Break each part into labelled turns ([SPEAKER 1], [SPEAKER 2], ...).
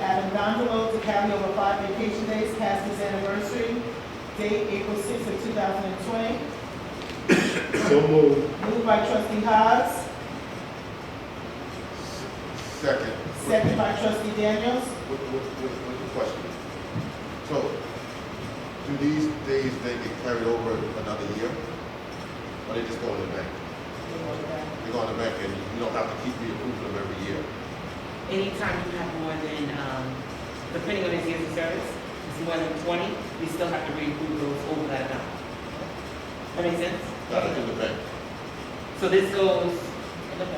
[SPEAKER 1] Dondolo to Cali over five vacation days past his anniversary, date April sixth of two thousand and twenty.
[SPEAKER 2] So moved.
[SPEAKER 1] Moved by trustee Hobbs,
[SPEAKER 2] Second.
[SPEAKER 1] second by trustee Daniels.
[SPEAKER 2] With, with, with, with the question. So, do these days then get carried over another year? Or they just go in the bank? They go in the bank and you don't have to keep reapproving them every year?
[SPEAKER 3] Anytime you have more than, um, depending on his years of service, it's more than twenty, we still have to reapprove those over that amount. That make sense?
[SPEAKER 2] Got it in the bank.
[SPEAKER 3] So this goes,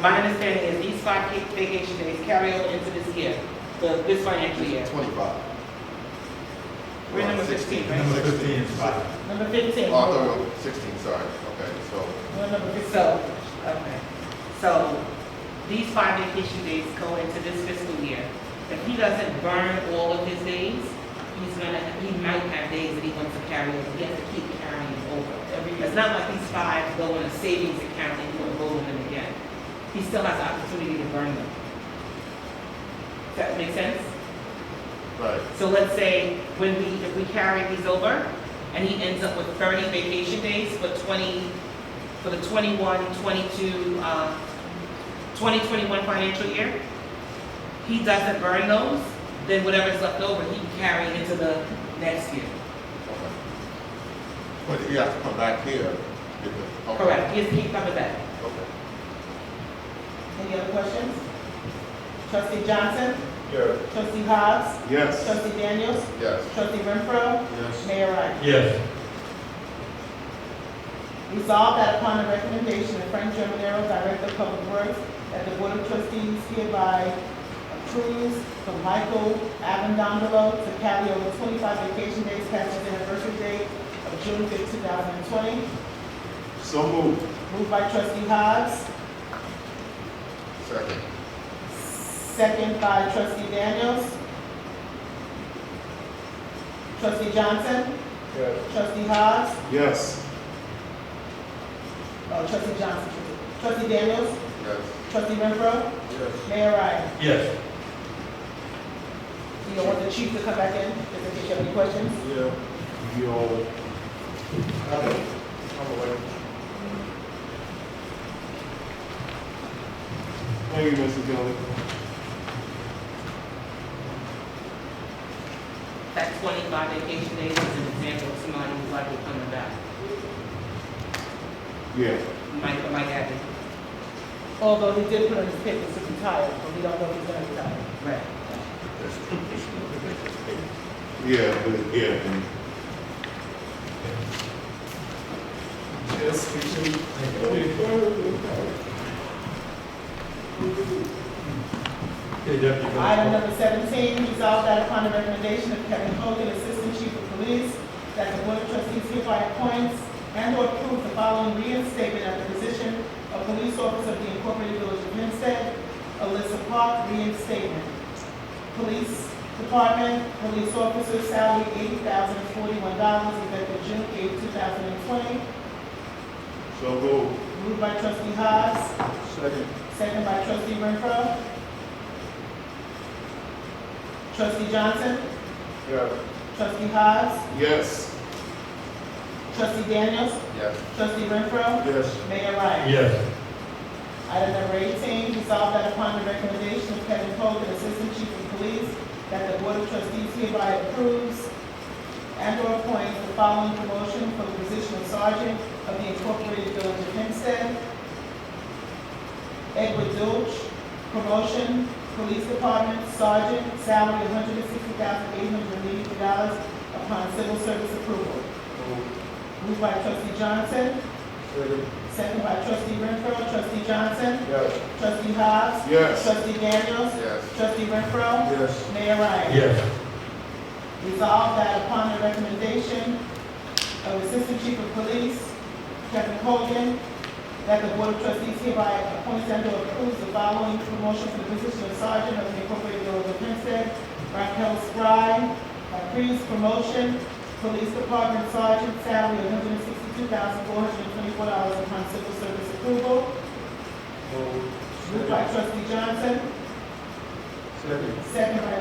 [SPEAKER 3] my understanding is these five ca- vacation days carry over into this year, the, this financial year.
[SPEAKER 2] Twenty-five.
[SPEAKER 3] We're number 15, right?
[SPEAKER 4] Number 15 is five.
[SPEAKER 1] Number fifteen.
[SPEAKER 2] Oh, I thought we were sixteen, sorry. Okay, so,
[SPEAKER 1] We're number fifteen.
[SPEAKER 3] So, okay, so these five vacation days go into this fiscal year. If he doesn't burn all of his days, he's gonna, he might have days that he wants to carry over, he has to keep carrying over.
[SPEAKER 1] Every year.
[SPEAKER 3] It's not like these five go in a savings account and you enroll them again. He still has the opportunity to burn them. Does that make sense?
[SPEAKER 2] right.
[SPEAKER 3] So let's say when we, if we carry these over and he ends up with thirty vacation days for twenty, for the 21, 22, uh, twenty twenty-one financial year, he doesn't burn those, then whatever's left over, he can carry into the next year.
[SPEAKER 2] Okay. But if you have to come back here, get the. okay.
[SPEAKER 3] Correct, he has to keep coming back.
[SPEAKER 2] Okay.
[SPEAKER 1] Any other questions? Trustee Johnson,
[SPEAKER 2] Yes.
[SPEAKER 1] trustee Hobbs,
[SPEAKER 4] Yes.
[SPEAKER 1] trustee Daniels,
[SPEAKER 2] Yes.
[SPEAKER 1] trustee Renfro,
[SPEAKER 2] Yes.
[SPEAKER 1] Mayor Ryan.
[SPEAKER 4] Yes.
[SPEAKER 1] Resolved that upon the recommendation of Frank Germanero, Director of Public Works, that the Board of Trustees hereby approves from Michael Avendondolo to Cali over twenty-five vacation days past his anniversary date of June fifth, two thousand and twenty.
[SPEAKER 4] So moved.
[SPEAKER 1] Moved by trustee Hobbs,
[SPEAKER 2] Second.
[SPEAKER 1] second by trustee Daniels. Trustee Johnson,
[SPEAKER 2] Yes.
[SPEAKER 1] trustee Hobbs,
[SPEAKER 4] Yes.
[SPEAKER 1] oh, trustee Johnson, trustee Daniels,
[SPEAKER 2] Yes.
[SPEAKER 1] trustee Renfro,
[SPEAKER 2] Yes.
[SPEAKER 1] Mayor Ryan.
[SPEAKER 4] Yes.
[SPEAKER 1] You don't want the chief to come back in, just in case you have any questions?
[SPEAKER 2] Yeah. Yo.
[SPEAKER 4] Thank you, Mrs. Kelly.
[SPEAKER 3] That twenty-five vacation days is an example of somebody who's likely coming back.
[SPEAKER 4] Yeah.
[SPEAKER 3] Mike, Mike Abbott.
[SPEAKER 1] Although he did put on his papers to retire, but we don't know if he's gonna retire.
[SPEAKER 3] Right.
[SPEAKER 4] Yeah, but- yeah. Yes, we should. Okay, Deputy.
[SPEAKER 1] Item number seventeen, resolve that upon the recommendation of Kevin Hogan, Assistant Chief of Police, that the Board of Trustees hereby appoints and or approves the following reinstatement at the position of Police Officer of the Incorporated Village of Hempstead, Alyssa Park, reinstatement. Police Department, Police Officer, salary eighty thousand forty-one dollars, effective June eighth, two thousand and twenty.
[SPEAKER 4] So moved.
[SPEAKER 1] Moved by trustee Hobbs,
[SPEAKER 4] Second.
[SPEAKER 1] second by trustee Renfro. Trustee Johnson,
[SPEAKER 4] Yes.
[SPEAKER 1] trustee Hobbs,
[SPEAKER 4] Yes.
[SPEAKER 1] trustee Daniels,
[SPEAKER 2] Yes.
[SPEAKER 1] trustee Renfro,
[SPEAKER 4] Yes.
[SPEAKER 1] Mayor Ryan.
[SPEAKER 4] Yes.
[SPEAKER 1] Item number eighteen, resolve that upon the recommendation of Kevin Hogan, Assistant Chief of Police, that the Board of Trustees hereby approves and or appoints the following promotion for the position of Sergeant of the Incorporated Village of Hempstead. Edward Dulce, promotion, Police Department, Sergeant, salary one hundred and sixty thousand eight hundred and eighty dollars upon civil service approval. Moved by trustee Johnson, second by trustee Renfro, trustee Johnson,
[SPEAKER 2] Yes.
[SPEAKER 1] trustee Hobbs,
[SPEAKER 4] Yes.
[SPEAKER 1] Trustee Daniels?
[SPEAKER 2] Yes.
[SPEAKER 1] Trustee Renfro?
[SPEAKER 4] Yes.
[SPEAKER 1] Mayor Ryan?
[SPEAKER 4] Yes.
[SPEAKER 1] Resolve that upon the recommendation of Assistant Chief of Police, Kevin Hogan, that the Board of Trustees hereby appoints and or approves the following promotion for the position of Sergeant of the Incorporated Village of Hempstead, Raquel Spry, uh, previous promotion, Police Department Sergeant, salary one hundred and sixty-two thousand four hundred and twenty-four dollars upon civil service approval. Moved by Trustee Johnson,
[SPEAKER 4] Second.
[SPEAKER 1] second by